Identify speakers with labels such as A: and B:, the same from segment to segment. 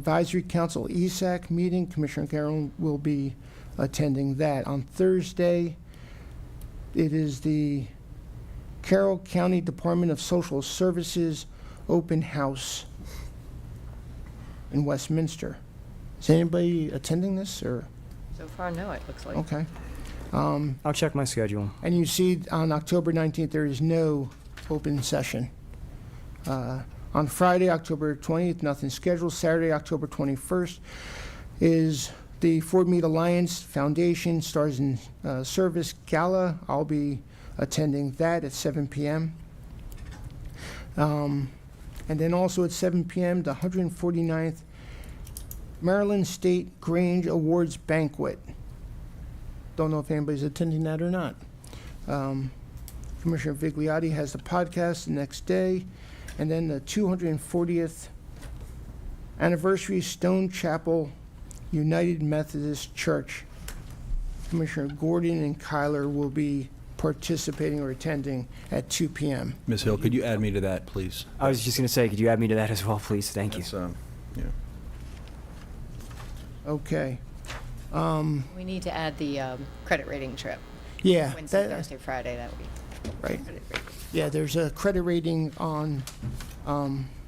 A: Advisory Council E ESAC meeting, Commissioner Carroll will be attending that. On Thursday, it is the Carroll County Department of Social Services Open House in Westminster. Is anybody attending this, or,
B: So far, no, it looks like.
A: okay.
C: I'll check my schedule.
A: And you see on October 19th, there is no open session. Uh, On Friday, October 20th, nothing scheduled. Saturday, October 21st is the Ford Meat Alliance Foundation Stars in uh, Service Gala. I'll be attending that at 7 PM. Um, And then also at 7 PM, the 149th Maryland State Grange Awards Banquet. Don't know if anybody's attending that or not. Um, Commissioner Vigliotti has the podcast the next day, and then the 240th anniversary Stone Chapel United Methodist Church. Commissioner Gordon and Kyler will be participating or attending at 2 PM.
D: Ms. Hill, could you add me to that, please?
C: I was just going to say, could you add me to that as well, please? Thank you.
D: That's, um, yeah.
A: Okay,
B: We need to add the um, credit rating trip,
A: yeah.
B: Wednesday,
A: that-
B: Thursday, Friday that week.
A: Right,
B: Credit rating.
A: yeah, there's a credit rating on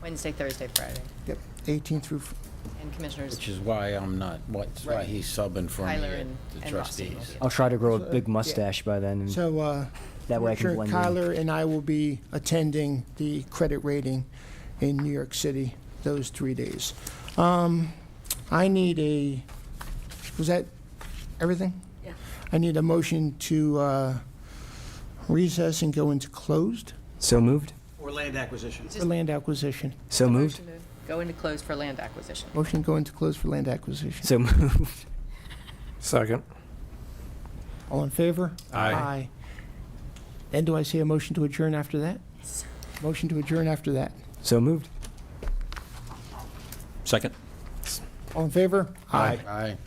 B: Wednesday, Thursday, Friday.
A: yep, 18 through,
B: And Commissioners,
E: Which is why I'm not, what's why
B: Right.
E: he's subbing for me
B: Tyler
E: at
B: and
E: the
B: and Rossi.
E: trustees.
C: I'll try to grow a big mustache by then. and
A: so, uh,
C: Mm-hmm. That way I can
A: Commissioner
C: blend in.
A: Kyler and I will be attending the credit rating in New York City those three days. Um, I need a, was that everything?
B: Yeah.
A: I need a motion to uh, recess and go into closed
C: So moved?
F: Or land acquisitions.
A: for land acquisition.
C: So moved?
B: Go into close for land acquisition.
A: Motion to go into closed for land acquisition.
C: So moved.
G: Second.
A: All in favor? Aye. Then do I see a motion to adjourn after that? Motion to adjourn after that.
C: So moved?
D: Second?
A: All in favor?
E: Aye.